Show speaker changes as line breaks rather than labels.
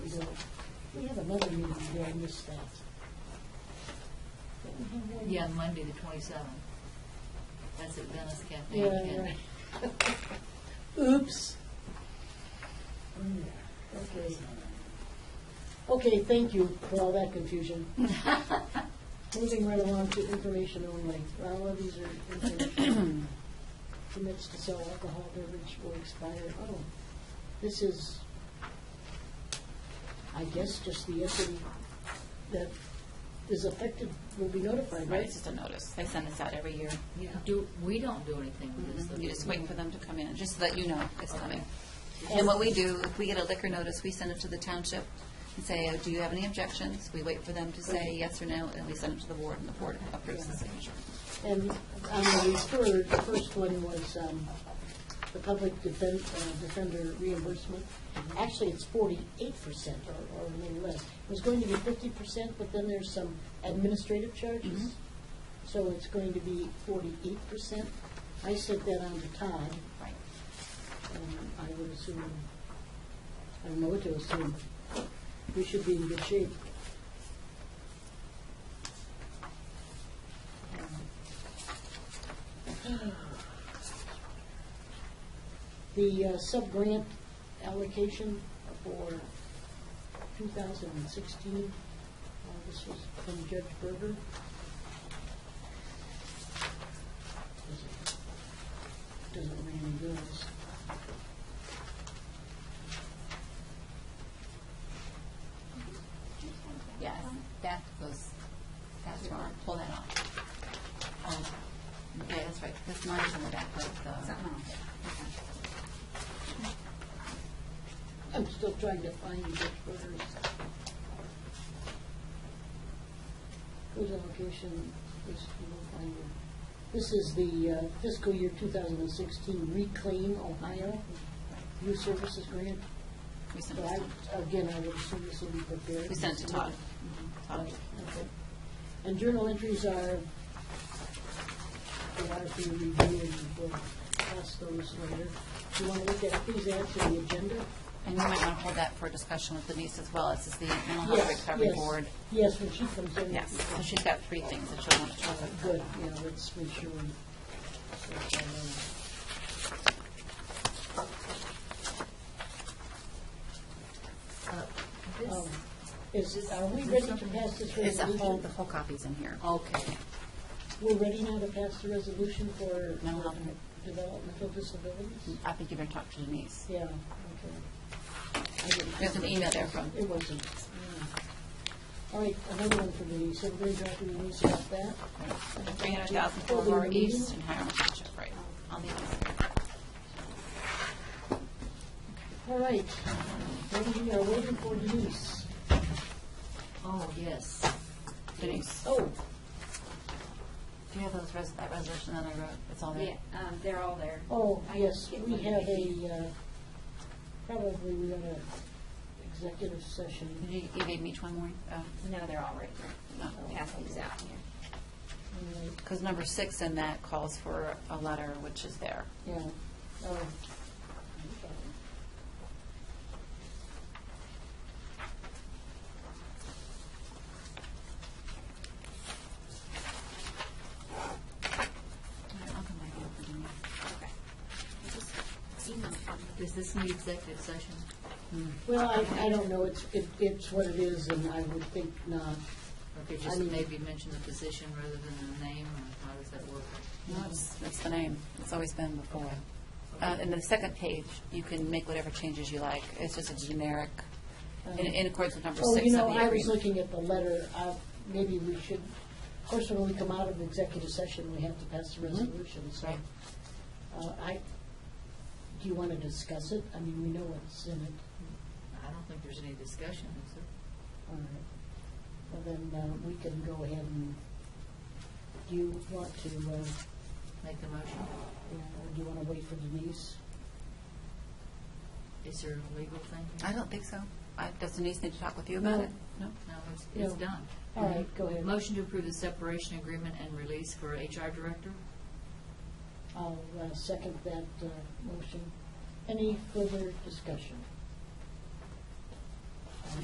ago, we had another meeting where I missed that. Didn't we have one?
Yeah, Monday, the twenty-seventh. That's at Venice Cafe.
Yeah,
and-
right. Oops. Mm, Okay. Okay, thank you for all that confusion. Moving right along to information only. All of these are information. Permits to sell alcohol beverage will expire. Oh, this is, I guess, just the entity that is affected will be notified,
Right,
right?
it's just a notice. They send this out every year.
Do, we don't do anything with this. though.
You just wait for them to come in, just so that you know it's coming. And what we do, if we get a liquor notice, we send it to the township and say, oh, do you have any objections? We wait for them to say yes or no, and we send it to the board, and the board approves the signature.
And on the refer, the first one was um, the public defen- uh, defender reimbursement. Actually, it's forty-eight percent or or a little less. It was going to be fifty percent, but then there's some administrative charges. So it's going to be forty-eight percent. I sent that on to Todd,
Right.
and I would assume, I don't know what to assume. We should be in good shape. The uh, sub-grant allocation for 2016, uh, this was from Judge Berger. Doesn't- Doesn't ring any bells.
Yes, Um, that goes, that's wrong. Pull that off. Oh, Okay, that's right. This line's in the back of the.
I'm still trying to find Judge Berger's. Whose allocation is, you will find it. This is the uh, fiscal year 2016 Reclaim Ohio Youth Services Grant.
We send
So
it to,
I, again, I would assume this will be prepared.
we send it to Todd. Todd.
Okay. And journal entries are, they are for review, and we'll pass those later. Do you want to look at these as to the agenda?
And you might want to hold that for discussion with Denise as well. This is the mental health recovery
yes.
board.
Yes, when she comes in. uh,
Yes, so she's got three things that she'll want to talk about.
Good, yeah, let's make sure. we-
Uh,
Um,
this-
Is, it- are we ready to pass this
It's a whole, the
resolution?
whole copy's in here.
Okay,
We're ready now to pass the resolution for
No, Mm.
for
I'm-
developmental disabilities?
I think you better talk to Denise.
Yeah, okay. I didn't-
There's an email there from,
It wasn't. yeah. All right, another one for Denise, everybody's happy with Denise about that?
three hundred thousand for Lower East and Hiram Township, right? I'll leave this.
All right, then we are waiting for Denise.
oh, yes.
Denise,
Oh,
do you have those, res- that resolution that I wrote? It's all
Yeah,
there?
um, they're all there.
oh,
I
yes,
get
we
one.
have a, uh, probably we got a executive session.
You you gave me each one more? Oh,
No, they're all right there. Pass these out here.
Because number six in that calls for a letter, which is there.
Yeah, oh.
I'll come back and look at Denise.
Does this need executive session?
Well, I, I don't know, it's, it- it's what it is, and I would think not. Um,
Okay,
I
just
mean-
maybe mention the position rather than the name, or how does that work?
No, it's, it's the name. It's always been before. Uh, and the second page, you can make whatever changes you like. It's just a generic, in, in accordance with number
Oh,
six
you
of
know,
the
I was
agreement.
looking at the letter, Uh, maybe we should, of course, when we come out of executive session, we have to pass the resolution, so.
Right.
uh, I, do you want to discuss it? I mean, we know what's in it.
I don't think there's any discussion, is there?
All right. Well, then uh, we can go ahead and, do you want to, uh,
Make the motion.
you know, or do you want to wait for Denise?
Is there a legal thing? here?
I don't think so. I- Does Denise need to talk with you about
No.
it? No?
No, it's,
No.
it's done.
All right, go ahead.
Motion to approve the separation agreement and release for HR director?
I'll uh, second that uh, motion. Any further discussion?